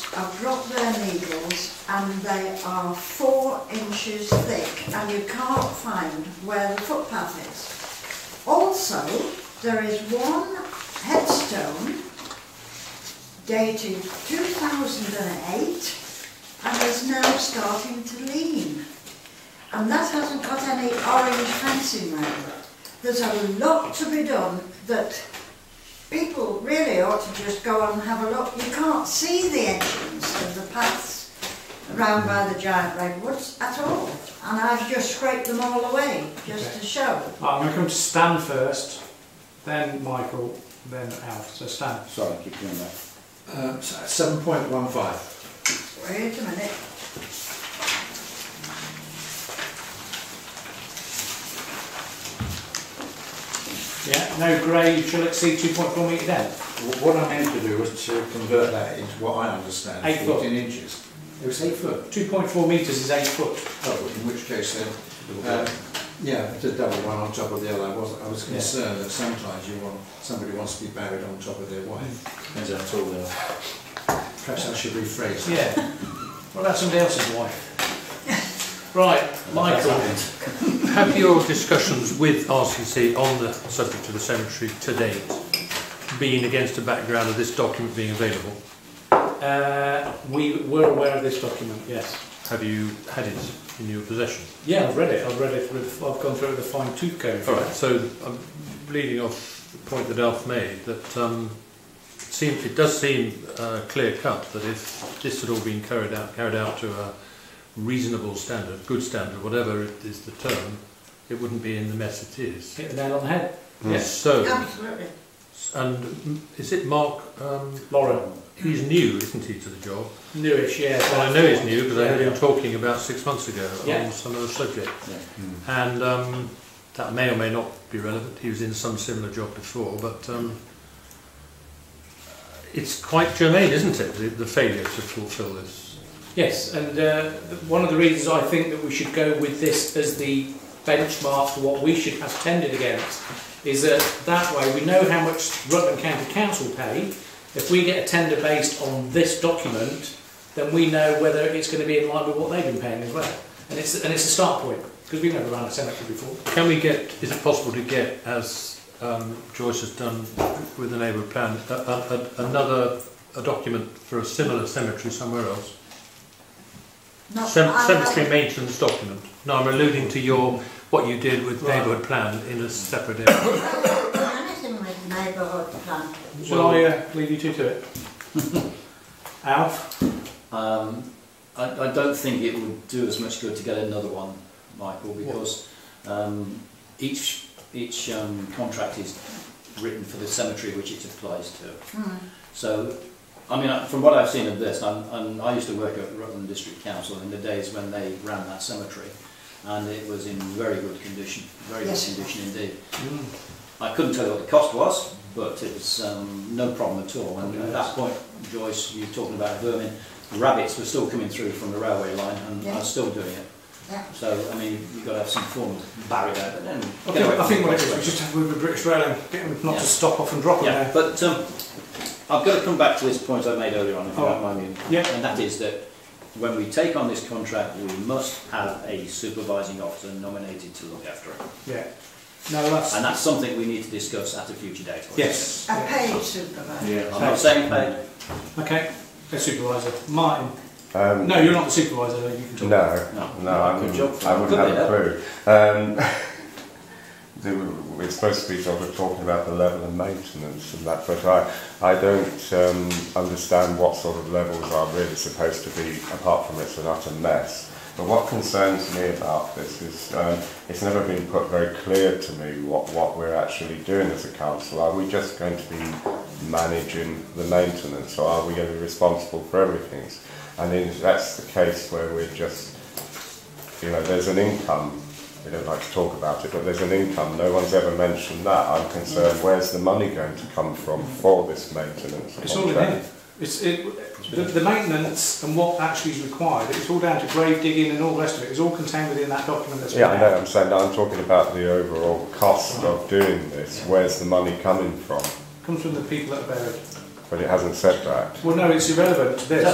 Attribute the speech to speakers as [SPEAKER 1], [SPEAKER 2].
[SPEAKER 1] I've dropped their needles and they are four inches thick and you can't find where the footpath is. Also, there is one headstone dated 2008 and is now starting to lean. And that hasn't got any orange fencing around it. There's a lot to be done that people really ought to just go and have a look. You can't see the entrance of the paths round by the giant redwoods at all. And I've just scraped them all away just to show.
[SPEAKER 2] Right, I'm going to come to Stan first, then Michael, then Alf. So Stan.
[SPEAKER 3] Sorry, keep doing that.
[SPEAKER 4] Um, seven point one five.
[SPEAKER 1] Wait a minute.
[SPEAKER 2] Yeah. No grade shall exceed 2.4 metre depth.
[SPEAKER 4] What I meant to do was to convert that into what I understand,
[SPEAKER 2] Eight foot.
[SPEAKER 4] fourteen inches. It was eight foot,
[SPEAKER 2] 2.4 metres is 8 foot.
[SPEAKER 4] oh, in which case then, um, yeah, it's a double one on top of the other. I was, I was
[SPEAKER 2] Yeah.
[SPEAKER 4] concerned that sometimes you want, somebody wants to be buried on top of their wife.
[SPEAKER 3] Depends how tall they are.
[SPEAKER 4] Perhaps I should rephrase that.
[SPEAKER 2] Yeah. What about somebody else's wife? Right, Michael.
[SPEAKER 5] Have your discussions with RCC on the subject of the cemetery to date been against the background of this document being available?
[SPEAKER 2] Uh, we were aware of this document, yes.
[SPEAKER 5] Have you had it in your possession?
[SPEAKER 2] Yeah, I've read it. I've read it. With, I've gone through it with a fine tooth comb.
[SPEAKER 5] All right, so I'm leading off the point that Alf made, that um, it, seems, it does seem uh, clear cut that if this had all been carried out, carried out to a reasonable standard, good standard, whatever it is the term, it wouldn't be in the mess it is.
[SPEAKER 2] Hit the nail on the head. Yes.
[SPEAKER 5] So,
[SPEAKER 1] Absolutely.
[SPEAKER 5] and is it Mark? Um,
[SPEAKER 2] Lauren.
[SPEAKER 5] he's new, isn't he, to the job?
[SPEAKER 2] Newish, yeah.
[SPEAKER 5] Well, I know he's new because I heard him
[SPEAKER 2] Yeah.
[SPEAKER 5] talking about six months ago
[SPEAKER 2] Yeah.
[SPEAKER 5] on some other subject.
[SPEAKER 3] Yeah.
[SPEAKER 5] And um, that may or may not be relevant. He was in some similar job before, but um, it's quite germane, isn't it? The, the failure to fulfil this.
[SPEAKER 2] Yes, and uh, th- one of the reasons I think that we should go with this as the benchmark for what we should have tended against is that that way we know how much Rutland County Council pay. If we get a tender based on this document, then we know whether it's going to be in line with what they've been paying as well. And it's and it's a start point because we've never run a cemetery before.
[SPEAKER 5] Can we get? Is it possible to get, as um, Joyce has done with the neighbourhood plan, a, a, a, another a document for a similar cemetery somewhere else?
[SPEAKER 1] Not,
[SPEAKER 5] Cem-
[SPEAKER 1] I
[SPEAKER 5] cemetery
[SPEAKER 1] haven't-
[SPEAKER 5] maintenance document. No, I'm alluding to your what you did with
[SPEAKER 2] Right.
[SPEAKER 5] neighbourhood plan in a separate area.
[SPEAKER 1] I haven't done anything with neighbourhood plan.
[SPEAKER 2] Shall I uh, leave you two to it? Alf,
[SPEAKER 3] Um, I, I don't think it would do as much good to get another one, Michael, because um, each each um, contract is written for the cemetery which it applies to.
[SPEAKER 1] Hmm.
[SPEAKER 3] So, I mean, I- from what I've seen of this, I'm, I'm, I used to work at Rutland District Council in the days when they ran that cemetery, and it was in very good condition, very
[SPEAKER 1] Yes.
[SPEAKER 3] good condition indeed. I couldn't tell you what the cost was, but it was um, no problem at all. And at that point, Joyce, you were talking about vermin, rabbits were still coming through from the railway line, and I
[SPEAKER 1] Yeah.
[SPEAKER 3] was still doing it.
[SPEAKER 1] Yeah.
[SPEAKER 3] So, I mean, you've got to have some form of barrier, but then.
[SPEAKER 2] I think, I think what it is, we just have with the British Rail and get them not
[SPEAKER 3] Yeah.
[SPEAKER 2] to stop off and drop
[SPEAKER 3] Yeah,
[SPEAKER 2] them
[SPEAKER 3] but um, I've got to come back to this point I made earlier on, if you
[SPEAKER 2] Oh.
[SPEAKER 3] don't mind me.
[SPEAKER 2] Yeah.
[SPEAKER 3] And that is that when we take on this contract, we must have a supervising officer nominated to look after it.
[SPEAKER 2] there. Yeah. No, that's
[SPEAKER 3] And that's something we need to discuss at a future date. obviously.
[SPEAKER 2] Yes.
[SPEAKER 1] A paid supervisor.
[SPEAKER 3] I'm not saying paid,
[SPEAKER 2] Okay. The supervisor. Martin.
[SPEAKER 6] Um,
[SPEAKER 2] No, you're not the supervisor. You can talk.
[SPEAKER 6] No,
[SPEAKER 3] No.
[SPEAKER 6] no, I
[SPEAKER 3] Good
[SPEAKER 6] wouldn't,
[SPEAKER 3] job for
[SPEAKER 6] I
[SPEAKER 3] you.
[SPEAKER 6] wouldn't
[SPEAKER 3] Good
[SPEAKER 6] have a clue. Um, they were- it's supposed to be sort of talking about the level of maintenance and that, but I, I don't um, understand what sort of levels are really supposed to be, apart from it's an utter mess. But what concerns me about this is um, it's never been put very clear to me what, what we're actually doing as a council. Are we just going to be managing the maintenance or are we going to be responsible for everything? And if that's the case where we're just you know, there's an income. We don't like to talk about it, but there's an income. No one's ever mentioned that. I'm concerned. Where's the money going to come from for this maintenance?
[SPEAKER 2] It's all in
[SPEAKER 6] contract?
[SPEAKER 2] here. It's, it, the, the maintenance and what actually is required, it's all down to grave digging and all the rest of it. It's all contained within that document that's
[SPEAKER 6] Yeah, I
[SPEAKER 2] been
[SPEAKER 6] know.
[SPEAKER 2] out.
[SPEAKER 6] I'm saying that I'm talking about the overall cost of doing this. Where's the money coming from?
[SPEAKER 2] comes from the people that are buried.
[SPEAKER 6] But it hasn't said that.
[SPEAKER 2] Well, no, it's irrelevant to this.